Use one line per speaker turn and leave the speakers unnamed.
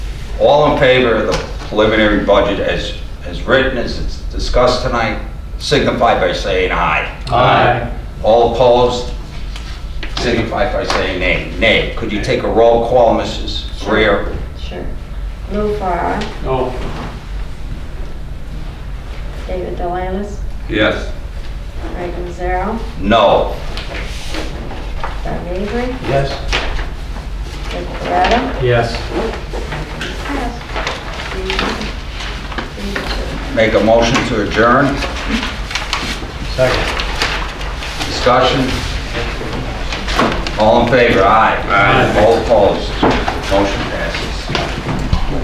All in favor of the preliminary budget as, as written, as it's discussed tonight, signify by saying aye.
Aye.
All opposed, signify by saying nay. Nay. Could you take a roll call, Mrs. Greer?
Sure. Lou Farah,
No.
David Delanis,
Yes.
Ray Gonzaro,
No.
Doug Avery,
Yes.
Dick Beretta.
Yes.
Make a motion to adjourn.
Second.
Discussion? All in favor? Aye.
Aye.
All opposed? Motion